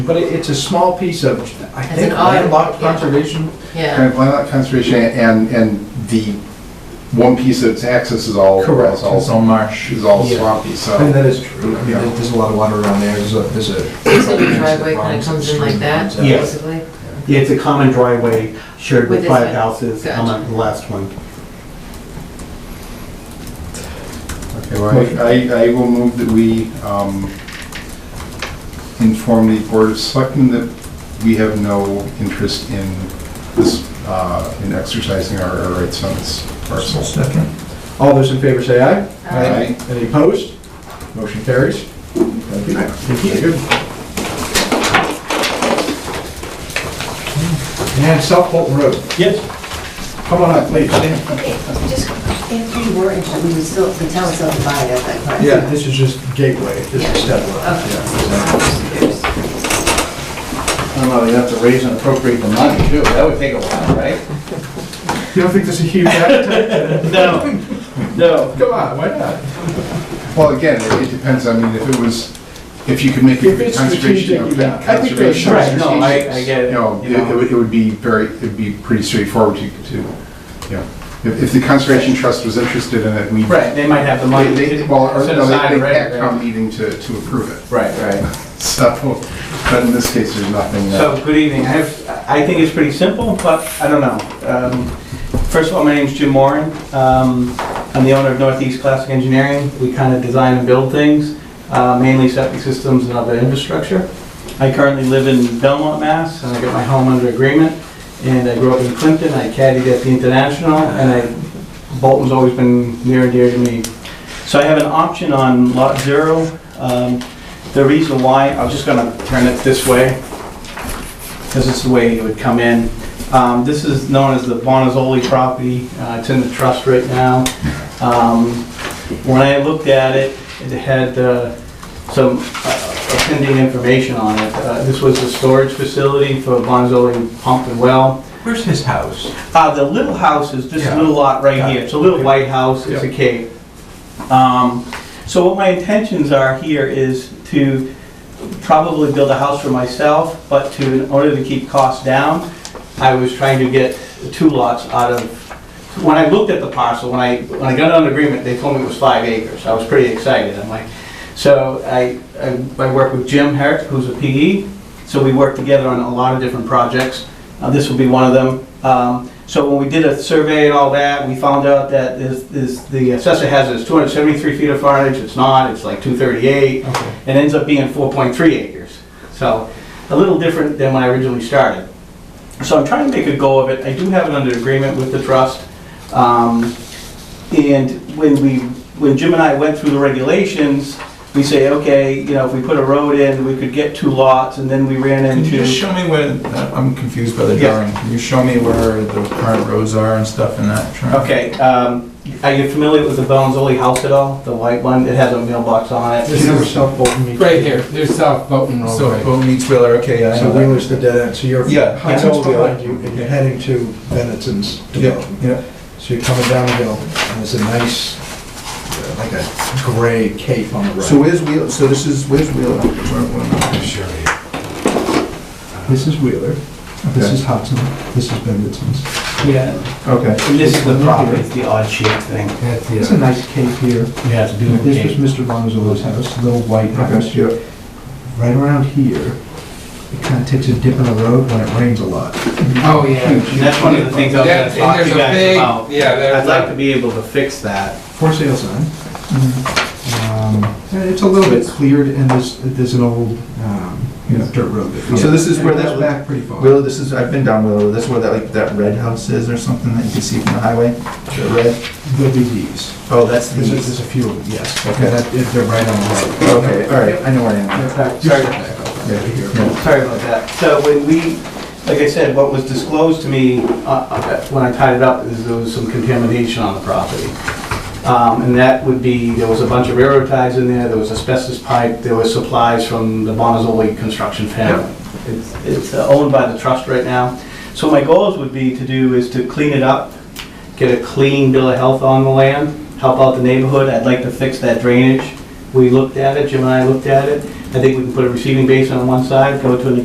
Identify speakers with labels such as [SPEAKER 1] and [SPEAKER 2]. [SPEAKER 1] But it- it's a small piece of, I
[SPEAKER 2] As
[SPEAKER 1] think,
[SPEAKER 2] an island,
[SPEAKER 1] landlocked
[SPEAKER 2] yeah.
[SPEAKER 1] conservation.
[SPEAKER 2] Yeah,
[SPEAKER 3] Kind of land conservation and, and the one piece that's access is all, is
[SPEAKER 1] It's
[SPEAKER 3] all,
[SPEAKER 1] all marsh.
[SPEAKER 3] is all
[SPEAKER 1] Yeah.
[SPEAKER 3] swampy,
[SPEAKER 1] I mean,
[SPEAKER 3] so.
[SPEAKER 1] that is true. I mean, there- there's a lot of water around there. There's a, there's a.
[SPEAKER 2] so your driveway kind of comes in like that,
[SPEAKER 1] Yeah.
[SPEAKER 4] Yes.
[SPEAKER 2] basically?
[SPEAKER 4] Yeah, it's a common driveway shared
[SPEAKER 2] With
[SPEAKER 4] with
[SPEAKER 2] this
[SPEAKER 4] five
[SPEAKER 2] one.
[SPEAKER 4] houses,
[SPEAKER 2] Gotcha.
[SPEAKER 4] on the last one.
[SPEAKER 1] Okay, right.
[SPEAKER 3] I, I will move that we, um, inform the Board of Selectmen that we have no interest in this, uh, in exercising our our rights on this parcel.
[SPEAKER 1] All those in favor say aye.
[SPEAKER 3] Aye.
[SPEAKER 1] Any opposed? Motion carries. Thank you. Thank you. And South Bolton Road.
[SPEAKER 4] Yes.
[SPEAKER 1] Come on up, please.
[SPEAKER 5] Just, if we were, interested, we would still, the town would still buy it, that part.
[SPEAKER 1] Yeah, this is just gateway. This is step one.
[SPEAKER 5] Okay.
[SPEAKER 1] Yeah, so-
[SPEAKER 6] I don't know, you have to raise and appropriate the money too, that would take a while, right?
[SPEAKER 1] You don't think there's a huge appetite?
[SPEAKER 4] No, no.
[SPEAKER 1] Come on, why not?
[SPEAKER 3] Well, again, it it depends, I mean, if it was, if you could make
[SPEAKER 1] If
[SPEAKER 3] a
[SPEAKER 1] it's
[SPEAKER 3] conservation.
[SPEAKER 1] strategic, yeah. I think that's
[SPEAKER 3] conservation-
[SPEAKER 4] right. No, I- I get it,
[SPEAKER 3] You know,
[SPEAKER 4] you
[SPEAKER 3] it-
[SPEAKER 4] know.
[SPEAKER 3] it would- it would be very, it'd be pretty straightforward to, to, you know, if, if the Conservation Trust was interested in it, we.
[SPEAKER 4] Right, they might have the money.
[SPEAKER 3] They, they- well, or
[SPEAKER 4] set
[SPEAKER 3] no,
[SPEAKER 4] aside
[SPEAKER 3] they, they
[SPEAKER 4] already,
[SPEAKER 3] had
[SPEAKER 4] right?
[SPEAKER 3] town meeting to, to approve it,
[SPEAKER 4] Right, right.
[SPEAKER 3] so, but in this case, there's nothing. uh,
[SPEAKER 4] So, good evening. I have, I think it's pretty simple, but I don't know. Um, First of all, my name's Jim Moran. Um, I'm the owner of Northeast Classic Engineering. We kind of design and build things, uh, mainly septic systems and other infrastructure. I currently live in Belmont, Mass, and I got my home under agreement. And I grew up in Clinton, I caddied at the International, and I, Bolton's always been near and dear to me. So I have an option on Lot Zero. Um, The reason why, I'm just gonna turn it this way, because it's the way it would come in. Um, This is known as the Bonazzoli property, Uh, it's in the trust right now. Um, When I looked at it, it had uh, some uh, offending information on it. Uh, This was a storage facility for Bonazzoli pump and well.
[SPEAKER 1] Where's his house?
[SPEAKER 4] Uh, The little house is this
[SPEAKER 1] Yeah.
[SPEAKER 4] little lot right here, it's a little white house, it's a
[SPEAKER 1] Yeah.
[SPEAKER 4] cave. Um, So what my intentions are here is to probably build a house for myself, but to, in order to keep costs down, I was trying to get two lots out of, when I looked at the parcel, when I, when I got on agreement, they told me it was five acres, I was pretty excited, I'm like, so I, I I work with Jim Herrick, who's a PE, so we work together on a lot of different projects, Uh, this will be one of them. Um, So when we did a survey and all that, we found out that is, is, the assessor has is 273 feet of frontage, it's not, it's like 238, and ends up being 4.3 acres. So, a little different than when I originally started. So I'm trying to make a go of it, I do have it under agreement with the trust. Um, And when we, when Jim and I went through the regulations, we say, okay, you know, if we put a road in, we could get two lots, and then we ran
[SPEAKER 7] Can you
[SPEAKER 4] into.
[SPEAKER 7] just show me where, uh, I'm confused by the
[SPEAKER 4] Yeah.
[SPEAKER 7] drawing, can you show me where the current roads are and stuff in that drawing?
[SPEAKER 4] Okay, um, are you familiar with the Bonzoli house at all? The white one, it has a mailbox on it.
[SPEAKER 1] This is where South Bolton meets.
[SPEAKER 6] Right here, there's South
[SPEAKER 1] Mm,
[SPEAKER 6] Bolton Road.
[SPEAKER 7] So Bo meets Wheeler, okay, I
[SPEAKER 1] So
[SPEAKER 7] know that.
[SPEAKER 1] Wheeler's the dead end, so you're.
[SPEAKER 7] Yeah, yeah.
[SPEAKER 1] Hutton's behind you, and you're heading to Benetton's
[SPEAKER 7] Yeah,
[SPEAKER 1] development.
[SPEAKER 7] yeah,
[SPEAKER 1] So you're coming down the hill, and there's a nice, uh, like a gray cape on the
[SPEAKER 7] so
[SPEAKER 1] right.
[SPEAKER 7] where's Wheeler, so this is, where's Wheeler?
[SPEAKER 1] This is Wheeler, this
[SPEAKER 7] Okay.
[SPEAKER 1] is Hudson, this is Benetton's.
[SPEAKER 4] Yeah.
[SPEAKER 7] Okay.
[SPEAKER 4] And this is the property, it's the odd shaped thing.
[SPEAKER 1] It's a nice cape here.
[SPEAKER 4] You have to do
[SPEAKER 1] This was Mr. Bonzolo's house, little white house.
[SPEAKER 7] Okay, yeah.
[SPEAKER 1] Right around here, it kind of takes a dip in the road when it rains a lot.
[SPEAKER 6] Oh, yeah.
[SPEAKER 4] And that's one of the things I was
[SPEAKER 6] Yeah,
[SPEAKER 4] gonna
[SPEAKER 6] and
[SPEAKER 4] talk to
[SPEAKER 6] there's
[SPEAKER 4] you
[SPEAKER 6] a
[SPEAKER 4] guys
[SPEAKER 6] big-
[SPEAKER 4] about.
[SPEAKER 6] yeah, there's
[SPEAKER 4] I'd like
[SPEAKER 6] a-
[SPEAKER 4] to be able to fix that.
[SPEAKER 1] For sale sign. Um, and It's a little bit cleared, and there's, there's an old, um, you know, dirt road that comes.
[SPEAKER 7] So this is where
[SPEAKER 1] It goes
[SPEAKER 7] that-
[SPEAKER 1] Back pretty far.
[SPEAKER 7] Wheeler, this is, I've been down Wheeler, that's where that, like, that red house is or something that you can see from the highway? The red,
[SPEAKER 1] There'll be these.
[SPEAKER 7] oh, that's the,
[SPEAKER 1] There's, a- there's a few, of them, yes.
[SPEAKER 7] Okay.
[SPEAKER 1] That- if They're right on the road.
[SPEAKER 7] okay, all right, I know where I am.
[SPEAKER 4] Sorry.
[SPEAKER 7] Yeah,
[SPEAKER 1] Sorry.
[SPEAKER 7] yeah.
[SPEAKER 4] Sorry about that. So when we, like I said, what was disclosed to me uh, uh, when I tied it up is there was some contamination on the property. Um, And that would be, there was a bunch of railroad ties in there, there was asbestos pipe, there was supplies from the Bonzoli construction family. It's it's uh, owned by the trust right now. So my goals would be to do is to clean it up, get a clean bill of health on the land, help out the neighborhood. I'd like to fix that drainage. We looked at it, Jim and I looked at it. I think we can put a receiving basin on one side, go to an